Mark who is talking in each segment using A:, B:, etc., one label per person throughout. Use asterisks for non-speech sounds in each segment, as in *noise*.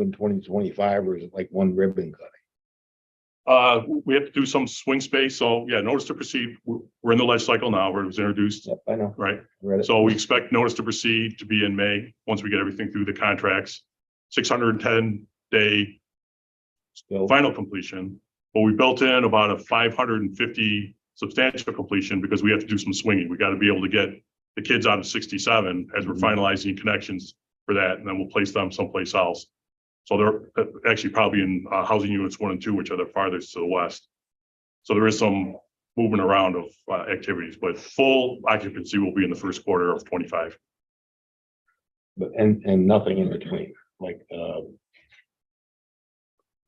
A: in twenty twenty-five, or is it like one ribbon cut?
B: Uh, we have to do some swing space, so yeah, notice to proceed, we're, we're in the life cycle now, where it was introduced,
A: Yep, I know.
B: right?
A: Read it.
B: So we expect notice to proceed to be in May, once we get everything through the contracts. Six hundred and ten day
A: Still,
B: final completion, but we built in about a five hundred and fifty substantial completion, because we have to do some swinging, we gotta be able to get the kids out of sixty-seven as we're
A: Mhm.
B: finalizing connections for that, and then we'll place them someplace else. So they're uh, actually probably in uh, housing units one and two, which are the farthest to the west. So there is some movement around of uh, activities, but full occupancy will be in the first quarter of twenty-five.
A: but, and, and nothing in between, like, uh,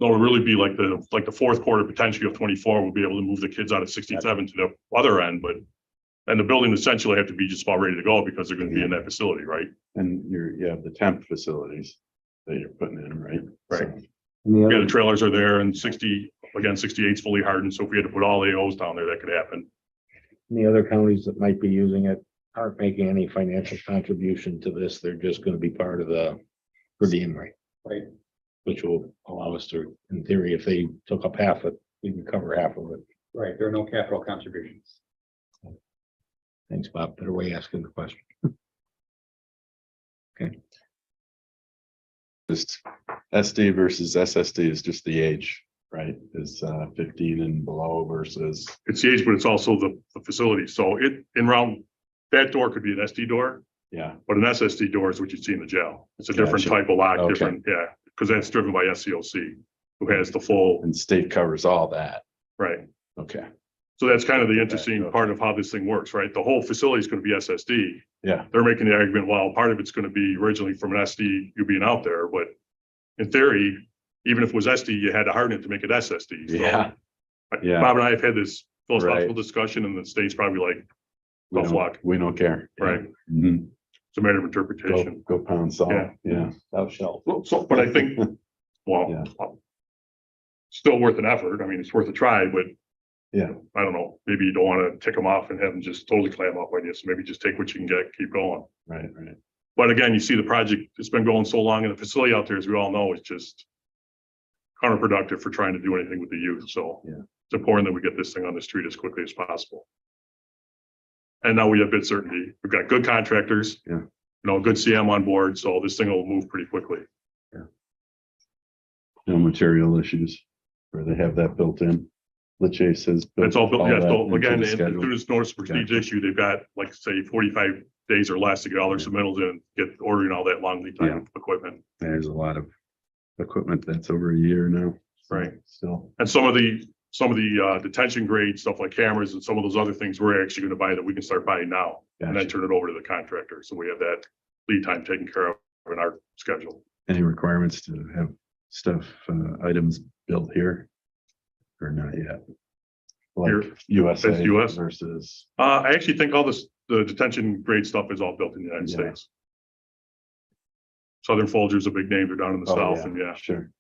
B: It'll really be like the, like the fourth quarter potentially of twenty-four, we'll be able to move the kids out of sixty-seven to the other end, but and the building essentially have to be just about ready to go because they're gonna be in that facility, right?
C: And you're, you have the temp facilities that you're putting in, right?
B: Right.
C: So-
D: And the
B: Yeah,
D: other,
B: the trailers are there and sixty, again, 68 is fully hardened, so if we had to put all AOs down there, that could happen.
A: the other counties that might be using it aren't making any financial contribution to this. They're just gonna be part of the rate.
D: Right.
A: Which will allow us to, in theory, if they took up half of, it, we can cover half of it.
D: right, there are no capital contributions.
A: Thanks, Bob. Better way asking the question.
C: Just SD versus SSD is just the age, right? Is uh fifteen and below versus,
B: It's the age, but it's also the, the facility, so it, in round, that door could be an SD door,
C: yeah,
B: but an SSD door is what you see in the jail. It's a different
C: Gotcha.
B: type of lock,
C: Okay.
B: different, yeah, because that's driven by SCLC, who has the full,
C: and state covers all that.
B: right?
C: Okay,
B: So that's kind of the interesting
C: okay.
B: part of how this thing works, right? The whole facility is going to be SSD.
C: yeah,
B: They're making the argument, well, part of it's going to be originally from an SD, you being out there, but in theory, even if it was SD, you had to harden it to make it SSD. So
C: yeah.
B: I-
C: yeah.
B: Bob and I have had this philosophical
C: Right.
B: discussion and the state's probably like,
C: We
B: Tough
C: don't-
B: luck.
C: We don't care. Yeah.
B: right,
C: Mhm.
B: it's a matter of
C: Go,
B: interpretation.
C: go pound
B: Yeah.
C: salt, yeah.
A: Thou shalt.
B: Well, So, but I
C: *laughs*
B: think, well, uh, still worth an effort. I mean, it's worth a try, but
C: Yeah.
B: I don't know, maybe you don't want to tick them off and have them just totally clam up on you. So maybe just take what you can get, keep going.
C: Right, right.
B: But again, you see the project, it's been going so long and the facility out there, as we all know, is just counterproductive for trying to do anything with the youth, so.
C: Yeah.
B: It's important that we get this thing on the street as quickly as possible. And now we have bid certainty. We've got good contractors.
C: Yeah.
B: You know, good CM on board, so this thing will move pretty quickly.
C: No material issues where they have that built in. Lache says.
B: That's all, built- yeah,
C: that
B: so
C: into
B: again,
C: the
B: as
C: schedule.
B: soon as notice of prestige
C: Gotcha.
B: issue, they've got, like, say, forty-five days or less to get all their submittals in, get ordering all that long lead
C: Yeah.
B: time equipment.
C: There's a lot of equipment that's over a year now. so
B: Right.
C: Still,
B: And some of the, some of the uh, detention grade stuff like cameras and some of those other things we're actually gonna buy that we can start buying now. And then
C: gotcha.
B: turn it over to the contractor. So we have that lead time taken care of in our schedule.
C: Any requirements to have stuff, uh, items built here? Or not yet?
B: Here.
C: Like USA
B: That's US.
C: versus,
B: Uh, I actually think all this, the detention grade stuff is all built in the United
C: Yeah.
B: States. Southern Folgers a big name. They're down in the
C: Oh,
B: south
C: yeah.
B: and yeah,
C: sure,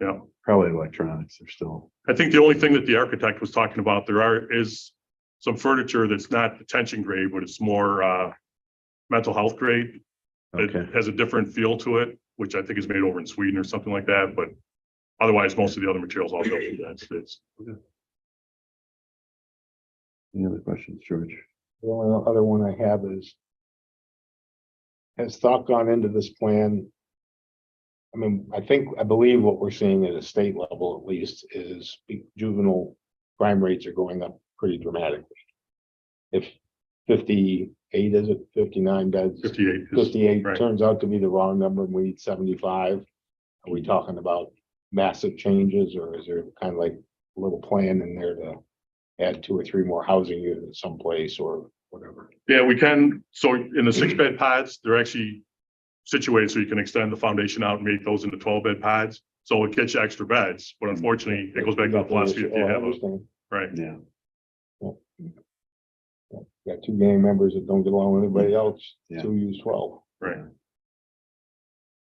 B: yeah.
C: probably electronics are still,
B: I think the only thing that the architect was talking about, there are, is some furniture that's not detention grade, but it's more, uh, mental health grade.
C: okay,
B: It has a different feel to it, which I think is made over in Sweden or something like that, but otherwise, most of the other materials all go through that. States.
C: any other questions, George?
A: The only other one I have is. Has thought gone into this plan? I mean, I think, I believe what we're seeing at a state level at least is juvenile crime rates are going up pretty dramatically. If fifty-eight, is it fifty-nine beds?
B: fifty-eight is,
A: Fifty-eight
B: right.
A: turns out to be the wrong number and we need seventy-five. Are
B: Mm.
A: we talking about massive changes or is there kind of like a little plan in there to add two or three more housing units someplace or whatever?
B: yeah, we can, so in the six-bed pods, they're actually situated so you can extend the foundation out and make those into twelve-bed pods. So it gets you extra beds, but unfortunately, it goes back to the philosophy if you
A: Oh, I
B: have a,
A: understand.
B: right?
C: Yeah,
A: Got two gang members that don't get along with
B: Mm.
A: anybody else,
C: Yeah.
A: two use twelve.
B: Right.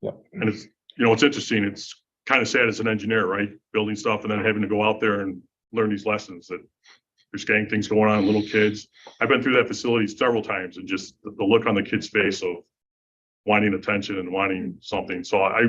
A: Yep.
B: And it's, you know, it's interesting. It's kind of sad as an engineer, right? Building stuff and then having to go out there and learn these lessons that there's gang things going on, little kids. I've been through that facility several times and just the the look on the kid's face of wanting attention and wanting something. So I,